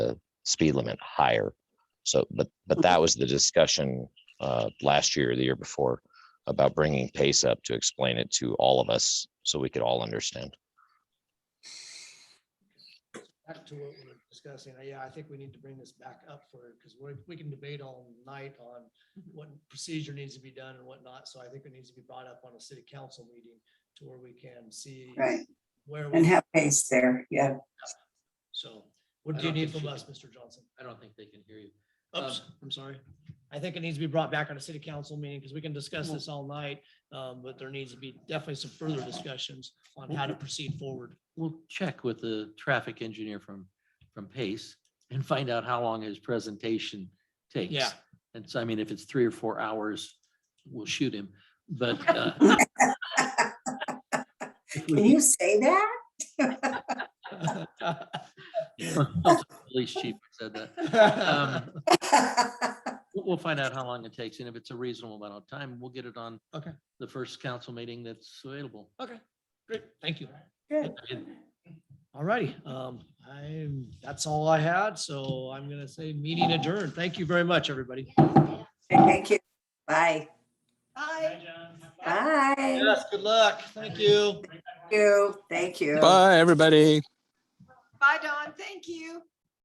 speed limit higher. So, but, but that was the discussion uh, last year, or the year before, about bringing pace up to explain it to all of us so we could all understand. back to what we were discussing, uh, yeah, I think we need to bring this back up for, because we're, we can debate all night on Mm-hmm. what procedure needs to be done and whatnot, so I think it needs to be brought up on a city council meeting to where we can see Right, where, and we have pace there, yeah. so, what I do you don't need think from she us, can- Uh, Mr. Johnson? I don't think they can hear you. Oops, I'm sorry. I think it needs to be brought back on a city council meeting, because we can discuss Mm-hmm. this all night, um, but there needs to be definitely some further discussions on how to proceed forward. We'll check with the traffic engineer from, from Pace and find out how long his presentation takes. Yeah. And so, I mean, if it's three or four hours, we'll shoot him, but. uh, if Can we you say that? Police chief said that. Um, We'll we'll find out how long it takes, and if it's a reasonable amount of time, we'll get it on. Okay. The first council meeting that's available. Okay, great, thank you. Good. All righty, um, I'm, that's all I had, so I'm gonna say meeting adjourned. Thank you very much, everybody. Thank you. Bye. Bye. Thank Yes, good luck. Thank you. you, thank you. Bye, everybody. Bye, Don. Thank you.